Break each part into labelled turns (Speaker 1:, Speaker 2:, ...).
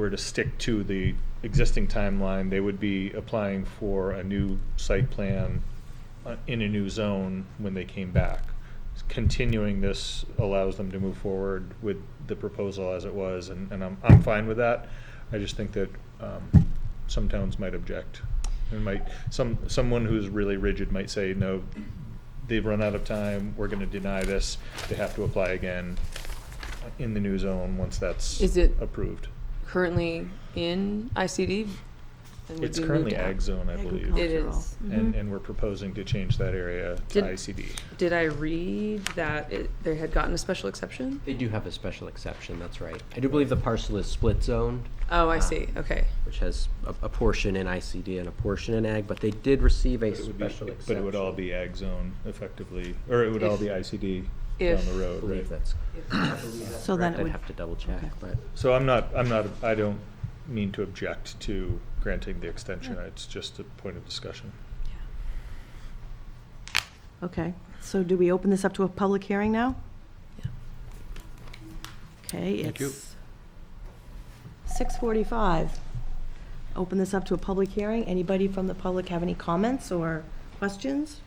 Speaker 1: were to stick to the existing timeline, they would be applying for a new site plan uh, in a new zone when they came back. Continuing this allows them to move forward with the proposal as it was, and, and I'm, I'm fine with that. I just think that, um, some towns might object. And might, some, someone who's really rigid might say, no, they've run out of time, we're gonna deny this, they have to apply again in the new zone once that's
Speaker 2: Is it-
Speaker 1: approved.
Speaker 2: currently in ICD? and would
Speaker 1: It's
Speaker 2: be moved
Speaker 1: currently
Speaker 2: out?
Speaker 1: ag zone, I believe.
Speaker 2: It is. Mm-hmm.
Speaker 1: And, and we're proposing to change that area to
Speaker 2: Did-
Speaker 1: ICD.
Speaker 2: Did I read that it, they had gotten a special exception?
Speaker 3: They do have a special exception, that's right. I do believe the parcel is split zoned,
Speaker 2: Oh, I
Speaker 3: Ah.
Speaker 2: see, okay.
Speaker 3: which has a, a portion in ICD and a portion in ag, but they did receive a
Speaker 1: But it would be-
Speaker 3: special exception.
Speaker 1: But it would all be ag zone effectively, or it would all
Speaker 2: If-
Speaker 1: be ICD down
Speaker 2: if-
Speaker 1: the
Speaker 3: I
Speaker 1: road,
Speaker 3: believe
Speaker 1: right?
Speaker 3: that's
Speaker 4: So then
Speaker 3: correct.
Speaker 4: it
Speaker 3: I'd
Speaker 4: would,
Speaker 3: have to double check,
Speaker 4: okay.
Speaker 3: but
Speaker 1: So I'm not, I'm not, I don't mean to object to granting the extension, it's just a point of discussion.
Speaker 4: okay. So do we open this up to a public hearing now? Okay,
Speaker 3: Thank you.
Speaker 4: it's 6:45. Open this up to a public hearing. Anybody from the public have any comments or questions?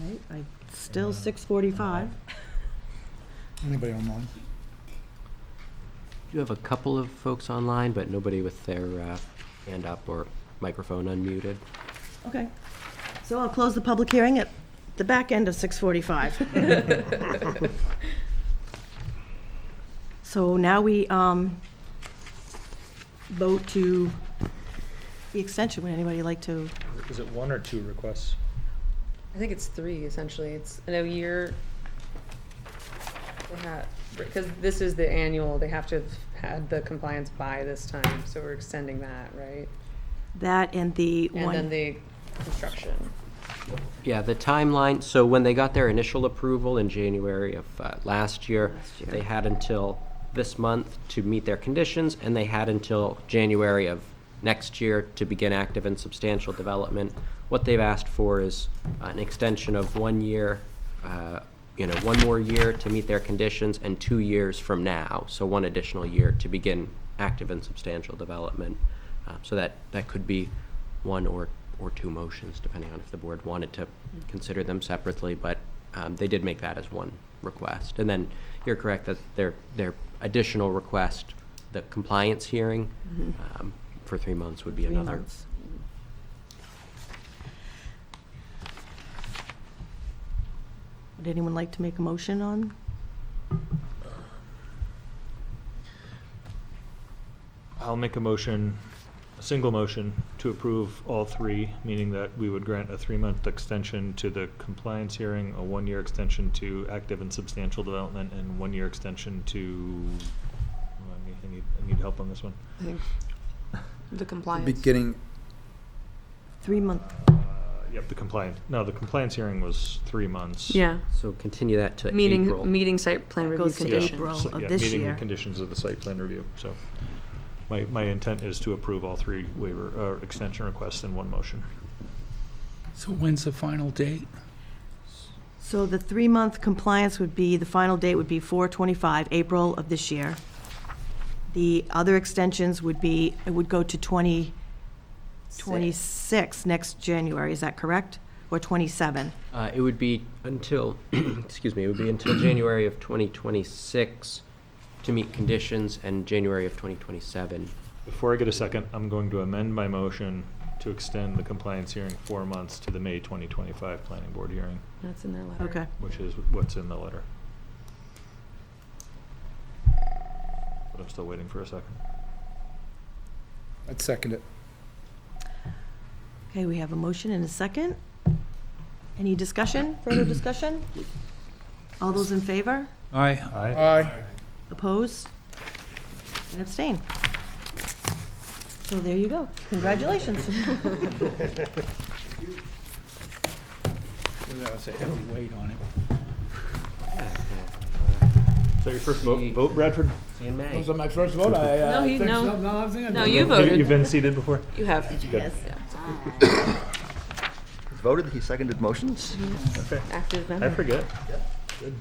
Speaker 4: Okay, I, still 6:45.
Speaker 5: Anybody online?
Speaker 3: you have a couple of folks online, but nobody with their, uh, hand up or microphone unmuted.
Speaker 4: Okay. So I'll close the public hearing at the back end of 6:45. So now we um, vote to the extension. Would anybody like to?
Speaker 1: Is it one or two requests?
Speaker 2: I think it's three essentially. It's in a year. They had, because this is the annual, they have to have had the compliance by this time, so we're extending that, right?
Speaker 4: That and the
Speaker 2: And then
Speaker 4: one,
Speaker 2: the construction.
Speaker 3: Yeah, the timeline, so when they got their initial approval in January of uh, last year,
Speaker 4: Last year.
Speaker 3: they had until this month to meet their conditions, and they had until January of next year to begin active and substantial development. What they've asked for is an extension of one year, uh, you know, one more year to meet their conditions, and two years from now, so one additional year to begin active and substantial development. Uh, So that, that could be one or, or two motions, depending on if the board wanted to consider them separately, but um, they did make that as one request. And then you're correct that their, their additional request, the compliance hearing um, for three months would be
Speaker 4: Three
Speaker 3: another.
Speaker 4: months. would anyone like to make a motion on?
Speaker 1: I'll make a motion, a single motion, to approve all three, meaning that we would grant a three-month extension to the compliance hearing, a one-year extension to active and substantial development, and one-year extension to, oh, I need- I need, I need help on this one.
Speaker 2: I think the compliance.
Speaker 5: Beginning,
Speaker 4: Three month,
Speaker 1: Uh, Yep, the compliance, no, the compliance hearing was three months.
Speaker 2: Yeah,
Speaker 3: So continue that to April.
Speaker 2: meeting, meeting site plan review
Speaker 4: Goes to
Speaker 2: condition.
Speaker 4: April.
Speaker 1: so-
Speaker 4: of
Speaker 1: yeah,
Speaker 4: this
Speaker 1: Meeting
Speaker 4: year.
Speaker 1: the conditions of the site plan review, so. My, my intent is to approve all three waiver, uh, extension requests in one motion.
Speaker 6: So when's the final date?
Speaker 4: so the three-month compliance would be, the final date would be 4/25, April of this year. The other extensions would be, it would go to 2026, next January, is that correct? Or 27?
Speaker 3: Uh, It would be until, excuse me, it would be until January of 2026 to meet conditions and January of 2027.
Speaker 1: Before I get a second, I'm going to amend my motion to extend the compliance hearing four months to the May 2025 Planning Board hearing,
Speaker 2: That's in their letter.
Speaker 4: Okay.
Speaker 1: which is what's in the letter. But I'm still waiting for a second.
Speaker 5: I'd second it.
Speaker 4: Okay, we have a motion and a second. Any discussion, further discussion? All those in favor?
Speaker 6: Aye.
Speaker 5: Aye.
Speaker 4: Opposed? And abstain? So there you go. Congratulations.
Speaker 6: That was a heavy weight on it.
Speaker 1: Is that your first vote, vote, Bradford?
Speaker 3: See you in May.
Speaker 5: That was my first vote,
Speaker 2: No,
Speaker 5: I, uh,
Speaker 2: he-
Speaker 5: think
Speaker 2: no.
Speaker 5: so. No, I think I
Speaker 2: No,
Speaker 5: did.
Speaker 2: you
Speaker 1: You've
Speaker 2: voted.
Speaker 1: been seated before?
Speaker 2: You have.
Speaker 1: Yes.
Speaker 7: voted, he seconded motions.
Speaker 2: Active member.
Speaker 1: I forget.
Speaker 5: Good.